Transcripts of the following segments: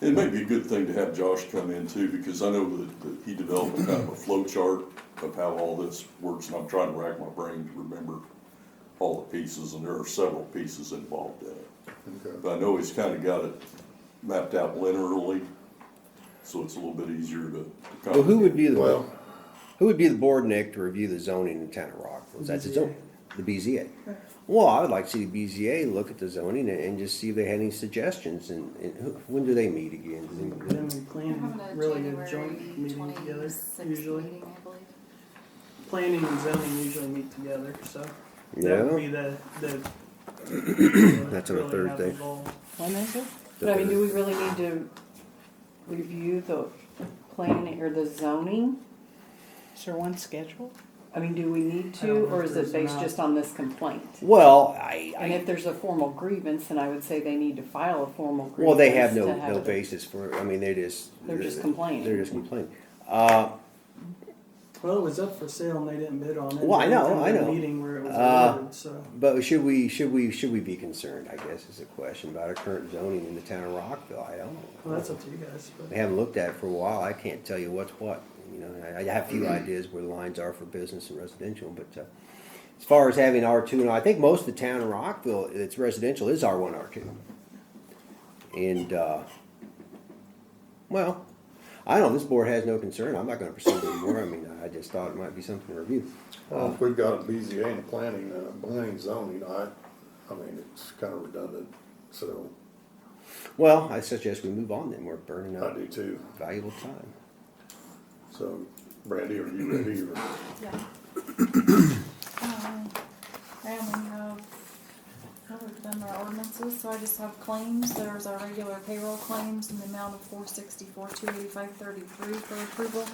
It may be a good thing to have Josh come in too, because I know that, that he developed a kind of a flow chart of how all this works, and I'm trying to rack my brain to remember all the pieces, and there are several pieces involved in it. Okay. But I know he's kind of got it mapped out linearly, so it's a little bit easier to. to Well, who would be the, Well, who would be the board, Nick, to review the zoning in town of Rockland? That's its own, the BZA. Well, I would like to see the BZA look at the zoning and, and just see if they had any suggestions and, and who- when do they meet again? Does Then anybody- we We're plan having a really January a joint meeting together, 26th usually. meeting, I believe. Planning and zoning usually meet together, so. That Yeah. would be the, the. That's on a really have Thursday. involved. When is it? But I mean, do we really need to review the planning or the zoning? Is there one scheduled? I mean, do we need I don't to, know or if is there's it based enough. just on this complaint? Well, I, And I, if there's a formal grievance, then I would say they need to file a formal grievance. well, they have no, to no it- basis for, I mean, they just. They're just complaining. They're just complaining. Uh, Well, it was up for sale and they didn't bid on it. Well, I There know, was I a know. Meeting where it was Uh, awarded, so. But should we, should we, should we be concerned, I guess, is the question about our current zoning in the town of Rockville? I don't. know. Well, that's up to you guys, but. We haven't looked at it for a while. I can't tell you what's what. You know, I, I have a Mm-hmm. few ideas where the lines are for business and residential, but, uh, as far as having R two, and I think most of the town in Rockville, it's residential, is R one, R two. And, uh, well, I don't, know, this board has no concern. I'm not gonna pursue it anymore. I mean, I just thought it might be something to review. well, if we've got a BZA and planning and a planning zoning, I, I mean, it's kind of redundant, so Well, I suggest we move on then. We're burning I up do too. valuable time. So Brandy, are you ready or? Yeah. Um, And we have, well, we've done our ordinances, so I just have claims, there's our regular payroll claims in the amount of four sixty-four, two eighty-five, thirty-three for approval.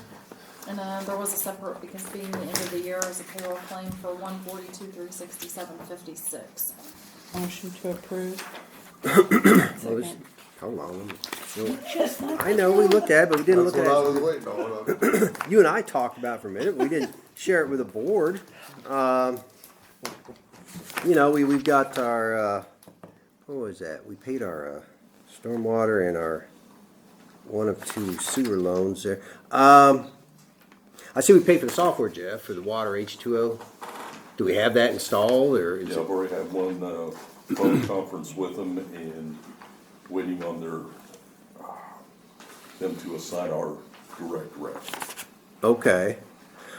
And then there was a separate, because being the end of the year, is a payroll claim for one forty-two, three sixty-seven, fifty-six. Motion to approve? Second. Hold on. Just like I know, we looked at it, but we didn't That's look what at I it. was waiting on. you and I talked about it for a minute. We didn't share it with the board. Um, you know, we, we've got our, uh, what was that? We paid our, uh, stormwater and our one of two sewer loans there. Um, I see we paid for the software, Jeff, for the water H two O. Do we have that installed or is Yeah, it? I've already had one, uh, phone conference with them and waiting on their, uh, them to assign our direct rep. Okay.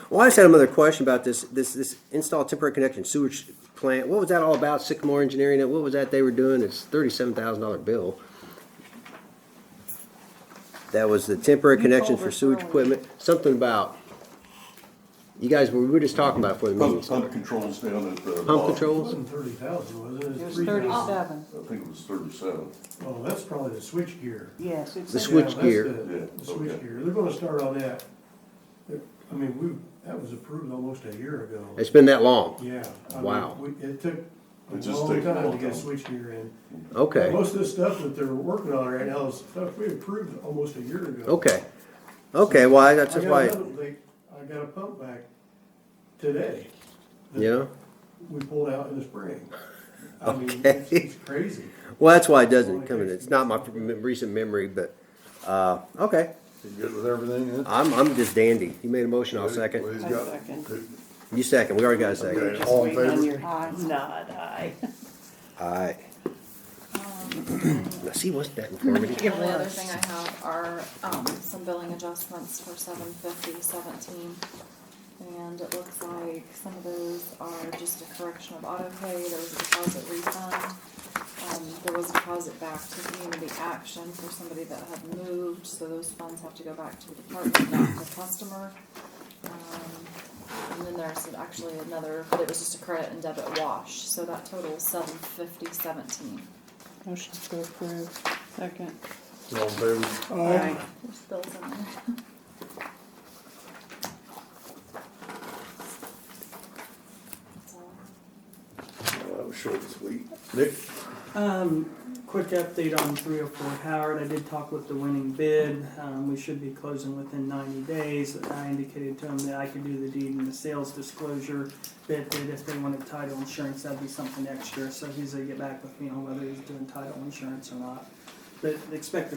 Well, I just had another question about this, this, this install temporary connection sewage plant. What was that all about? Sycamore Engineering, what was that they were doing? It's thirty-seven thousand dollar bill. That was the temporary You connection told for us sewage earlier. equipment, something about, you guys, we were just talking about it before the meeting Pump, pump started. controls down at the. Pump controls? thirty thousand, was it? It was three thousand. thirty-seven. I think it was thirty-seven. Oh, that's probably the switch gear. Yes, it's. The like- switch Yeah, that's gear. the- Yeah, The okay. switch gear, they're gonna start on that. I mean, we, that was approved almost a year ago. It's been that long? Yeah. I mean, Wow. we- It took a It just long takes a time long to get time. switch gear in. Okay, Most of the stuff that they're working on right now is stuff we approved almost a year ago. okay. Okay, well, I- I that's just got why, another- they- I got a pump back today. that yeah? We pulled out in the spring. I mean, Okay. it's- it's crazy. Well, that's why it doesn't come in. It's not my recent memory, but, uh, okay. You good with everything then? I'm, I'm just dandy. You made a motion, I'll Well, second. he's I got- second. You second, we already got a second. Okay, all in Wait on favor? your nod, aye. Alright, Um, now see, wasn't that informative? The only other thing I have are, um, some billing adjustments for seven fifty seventeen. And it looks like some of those are just a correction of auto pay, there was a deposit refund. Um, there was a deposit back to community action for somebody that had moved, so those funds have to go back to the department, not the customer. Um, And then there's actually another, but it was just a credit and debit wash, so that totals seven fifty seventeen. Motion to approve? Second. All in favor? Aye. There's bills in there. That's all. Well, that was short and sweet. Nick? Um, quick update on three oh four Howard, I did talk with the winning bid, um, we should be closing within ninety days. I indicated to him that I could do the deed and the sales disclosure, that, that if they wanted title insurance, that'd be something extra, so he's gonna get back with me on whether he's doing title insurance or not. But expect